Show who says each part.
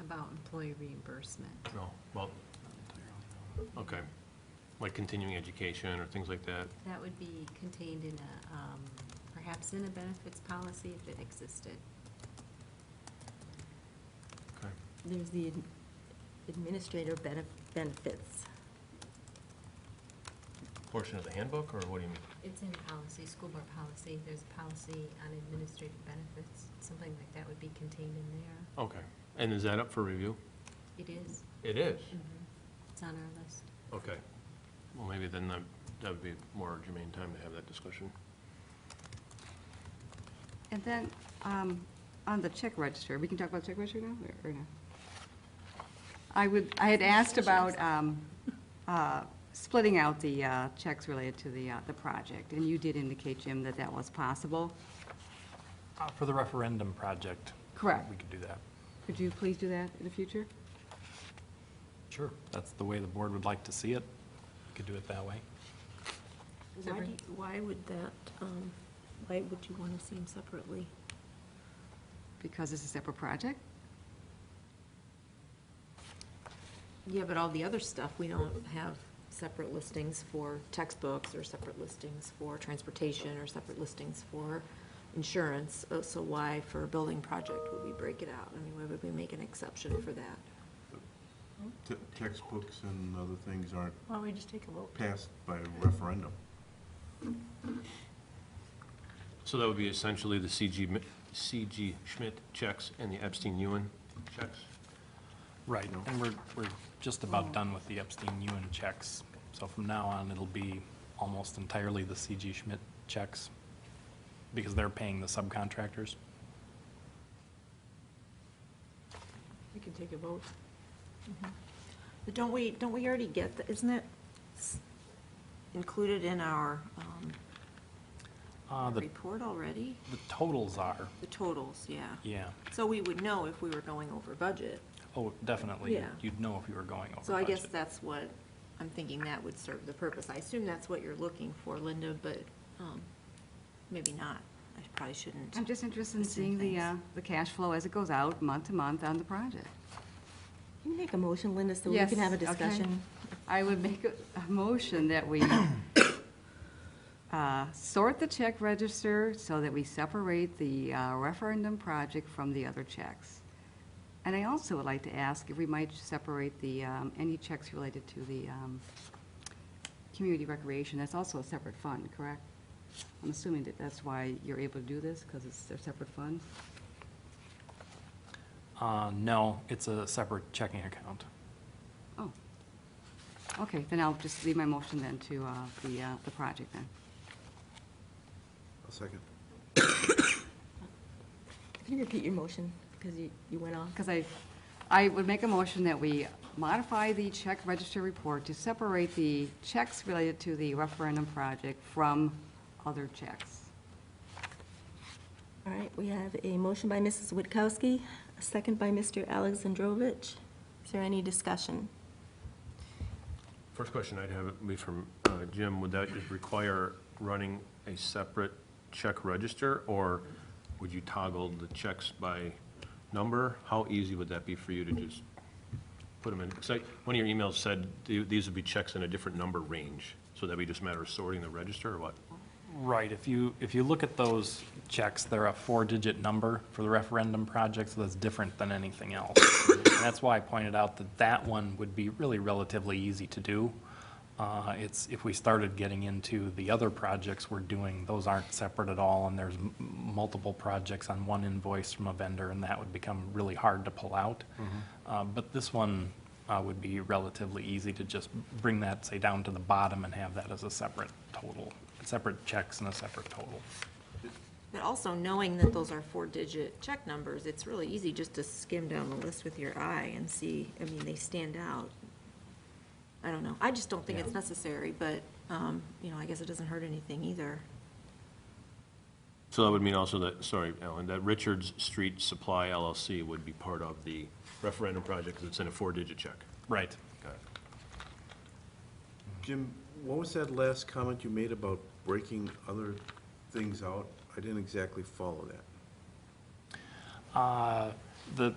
Speaker 1: about employee reimbursement.
Speaker 2: No, well, okay, like continuing education or things like that.
Speaker 1: That would be contained in a, um, perhaps in a benefits policy if it existed.
Speaker 2: Okay,
Speaker 3: There's the ad- administrator benef- benefits.
Speaker 2: Portion of the handbook, or what do you mean?
Speaker 1: It's in policy, school board policy, there's a policy on administrative benefits, something like that would be contained in there.
Speaker 2: Okay, and is that up for review?
Speaker 1: It is,
Speaker 2: It is.
Speaker 3: Mm-hmm.
Speaker 1: it's on our list.
Speaker 2: Okay, well, maybe then that, that would be more germane time to have that discussion.
Speaker 4: And then, um, on the check register, we can talk about the check register now, or or no? I would, I had asked about, um, uh, splitting out the, uh, checks related to the, uh, the project, and you did indicate, Jim, that that was possible.
Speaker 5: Uh, For the referendum project.
Speaker 4: Correct.
Speaker 5: We could do that.
Speaker 4: Could you please do that in the future?
Speaker 5: Sure. That's the way the board would like to see it. We Could do it that way.
Speaker 3: Why, do you- why would that, um, why would you want to see them separately?
Speaker 4: Because it's a separate project?
Speaker 3: Yeah, but all the other stuff, we don't have separate listings for textbooks or separate listings for transportation or separate listings for insurance. Uh, So why for a building project would we break it out? I mean, why would we make an exception for that?
Speaker 6: Te- Textbooks and other things aren't
Speaker 3: Why don't we just take a vote?
Speaker 6: passed by referendum.
Speaker 2: So that would be essentially the CG, Mi- CG Schmidt checks and the Epstein-Ewen checks?
Speaker 5: Right. And we're, we're just about done with the Epstein-Ewen checks. So from now on, it'll be almost entirely the CG Schmidt checks because they're paying the subcontractors.
Speaker 3: We can take a vote. Mm-hmm. But don't we, don't we already get, the- isn't it s- included in our um,
Speaker 5: Uh, The,
Speaker 3: report already?
Speaker 5: the totals are,
Speaker 3: The totals, yeah.
Speaker 5: yeah.
Speaker 3: So we would know if we were going over budget.
Speaker 5: Oh, definitely.
Speaker 3: Yeah.
Speaker 5: You'd know if you were going over
Speaker 3: So I guess
Speaker 5: budget.
Speaker 3: that's what, I'm thinking that would serve the purpose. I assume that's what you're looking for, Linda, but um, maybe not. I probably shouldn't.
Speaker 4: I'm just interested in
Speaker 3: Missing
Speaker 4: seeing the,
Speaker 3: things.
Speaker 4: uh, the cash flow as it goes out, month to month on the project.
Speaker 7: Can you make a motion, Linda, so we
Speaker 4: Yes,
Speaker 7: can have a
Speaker 4: okay.
Speaker 7: discussion?
Speaker 4: I would make a a motion that we uh, sort the check register so that we separate the uh, referendum project from the other checks. And I also would like to ask if we might separate the, um, any checks related to the um, community recreation, that's also a separate fund, correct? I'm assuming that that's why you're able to do this, because it's a separate fund?
Speaker 5: Uh, No, it's a separate checking account.
Speaker 4: Oh. Okay, then I'll just leave my motion then to uh, the, uh, the project then.
Speaker 6: A second.
Speaker 7: Can you repeat your motion, because you, you went off?
Speaker 4: Because I, I would make a motion that we modify the check register report to separate the checks related to the referendum project from other checks.
Speaker 7: All right, we have a motion by Mrs. Witkowski, a second by Mr. Alexandrovich. Is there any discussion?
Speaker 2: First question I'd have would be from uh, Jim, would that just require running a separate check register? Or would you toggle the checks by number? How easy would that be for you to just put them in? 'Cause I- one of your emails said th- these would be checks in a different number range, so that'd be just a matter of sorting the register or what?
Speaker 5: Right, if you, if you look at those checks, they're a four-digit number for the referendum project, so that's different than anything else. And That's why I pointed out that that one would be really relatively easy to do. Uh, It's, if we started getting into the other projects we're doing, those aren't separate at all, and there's m- multiple projects on one invoice from a vendor, and that would become really hard to pull out. Uh, But this one uh, would be relatively easy to just bring that, say, down to the bottom and have that as a separate total, separate checks and a separate total.
Speaker 3: But also knowing that those are four-digit check numbers, it's really easy just to skim down the list with your eye and see, I mean, they stand out. I don't know. I just don't think it's
Speaker 5: Yeah.
Speaker 3: necessary, but, um, you know, I guess it doesn't hurt anything either.
Speaker 2: So that would mean also that, sorry, Alan, that Richards Street Supply LLC would be part of the referendum project because it's in a four-digit check.
Speaker 5: Right.
Speaker 2: Got it.
Speaker 6: Jim, what was that last comment you made about breaking other things out? I didn't exactly follow that.
Speaker 5: The,